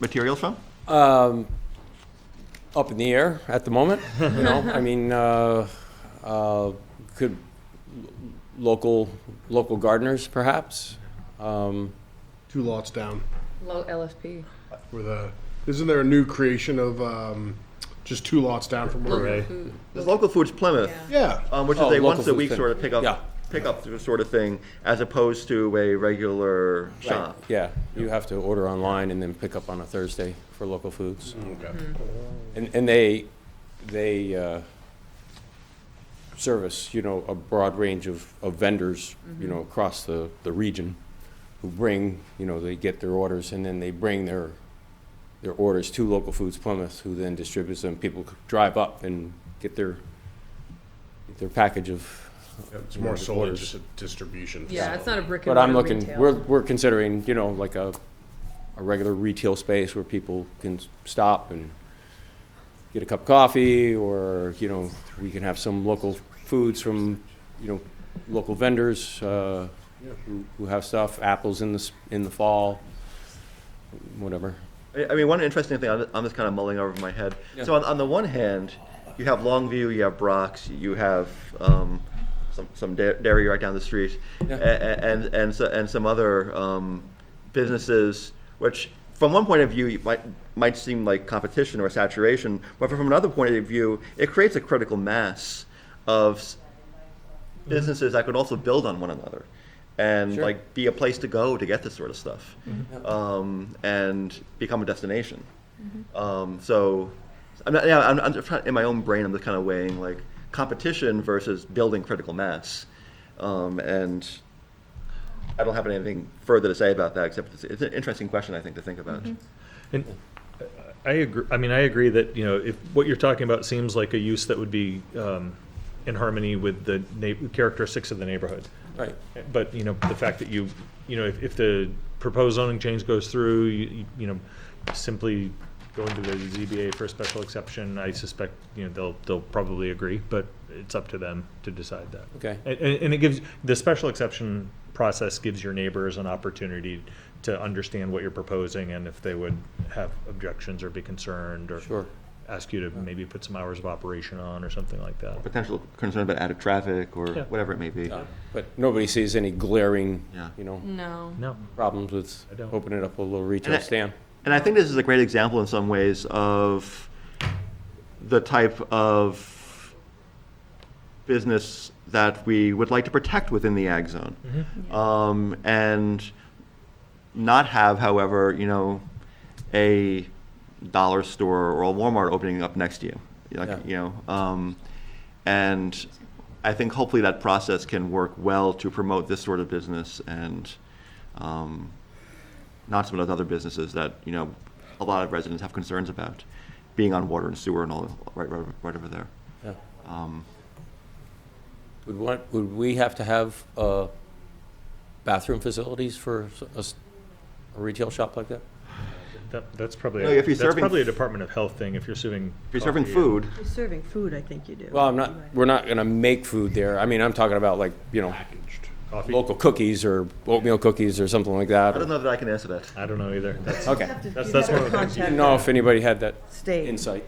material from? up in the air at the moment. You know, I mean, uh, uh, could local local gardeners perhaps? Um, two lots down Low LFP. where the isn't there a new creation of um, just two lots down from where Right. There's local foods Plymouth, yeah um, which Oh, is a local once a food week thing. sort of pick Yeah. up, pick up sort of thing, as opposed to a regular shop. yeah, you have to order online and then pick up on a Thursday for local foods, okay. and and they they uh, service you know a broad range of, of vendors you know across the, the region who bring you know they get their orders and then they bring their their orders to local foods Plymouth, who then distributes them. People c- drive up and get their get their package of. it's more sold as just a distribution Yeah, it's not a brick But and mortar I'm looking. retail. We're we're considering, you know, like a a regular retail space where people can s- stop and get a cup of coffee, or you know, we can have some local foods from, you know, local vendors uh, who, who have stuff. Apples in the s- in the fall, whatever. I I mean, one interesting thing, I'm I'm just kind of mulling over in my head. So on, on the one hand, you have Longview, you have Brock's, you have um, some, some da- dairy right down the street, a- Yeah. a- and, and, so- and some other um, businesses, which from one point of view you might, might seem like competition or saturation, but from another point of view, it creates a critical mass of s- businesses that could also build on one another and Sure. like be a place to go to get this sort of stuff um, and become a destination um, so i'm not yeah i'm, I'm just trying, in my own brain i'm just kind of weighing like competition versus building critical mass um, and i don't have anything further to say about that except it's, it's an interesting question i think to think about And I agree, I mean, I agree that, you know, if what you're talking about seems like a use that would be um, in harmony with the na- characteristics of the neighborhood. Right. But, you know, the fact that you, you know, if, if the proposed zoning change goes through, you, you- you know, simply go into the ZBA for a special exception, I suspect, you know, they'll, they'll probably agree, but it's up to them to decide that. Okay. And, and and it gives, the special exception process gives your neighbors an opportunity to understand what you're proposing and if they would have objections or be concerned or Sure. ask you to maybe put some hours of operation on or something like that. potential concern about added traffic or Yeah. whatever it may be But nobody sees any glaring, Yeah. you know, No. No, problems with I don't. opening up a little retail And I- stand. And I think this is a great example in some ways of the type of business that we would like to protect within the ag zone. Um, and not have, however, you know, a dollar store or a Walmart opening up next to you. Like, Yeah. You know, um, and I think hopefully that process can work well to promote this sort of business and, um, not some of those other businesses that, you know, a lot of residents have concerns about, being on water and sewer and all, right, right, right over there. Yeah. Um, Would want, would we have to have, uh, bathroom facilities for s- a, s- a retail shop like that? that, that's probably, No, if you're that's serving- probably a Department of Health thing if you're serving. If you're serving coffee. food, You're serving food, I think you do. Well, I'm not, we're not gonna make food there. I mean, I'm talking about like, you know, Coffee? local cookies or oatmeal cookies or something like that. I don't or- know that I can answer that. I don't know either. That's, Okay. That's- that's one of the things you Didn't know if anybody had that State. insight.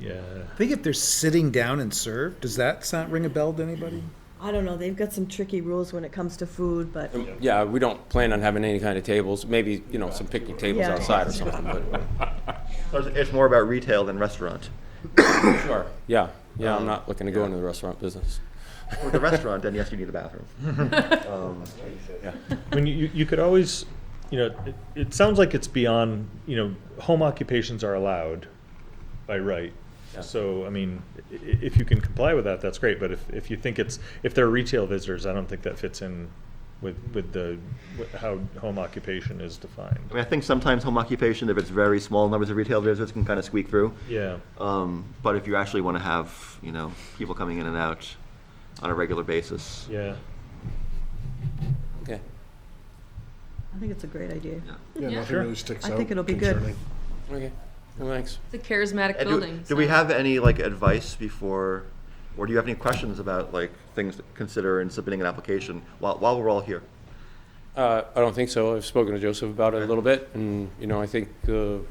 yeah. I think if they're sitting down and served, does that sound ring a bell to anybody? I don't know, they've got some tricky rules when it comes to food, but Yeah, we don't plan on having any kind of tables, maybe, you know, some picnic tables Yeah. outside or something, but, So It's it's more about retail than restaurant. sure, yeah, yeah, I'm not looking to go into the restaurant business. With the restaurant, then yes, you need a bathroom. Um, I mean, you, you could always, you know, it, it sounds like it's beyond, you know, home occupations are allowed by right. So, I mean, i- i- if you can comply with that, that's great, but if, if you think it's, if they're retail visitors, I don't think that fits in with, with the, with how home occupation is I defined. mean, I think sometimes home occupation, if it's very small numbers of retail visitors, can kind of squeak through. Yeah, Um, but if you actually want to have, you know, people coming in and out on a regular basis. yeah. Okay. I think it's a great idea. yeah, Yeah. nothing Sure. really sticks I out think it'll be good. concerning. Okay, well, thanks. It's a charismatic And Uh, do- building. Do we so- have any, like, advice before, or do you have any questions about, like, things to consider in submitting an application while, while we're all here? Uh, I don't think so. I've spoken to Joseph about it a little bit, and, you know, I think, uh,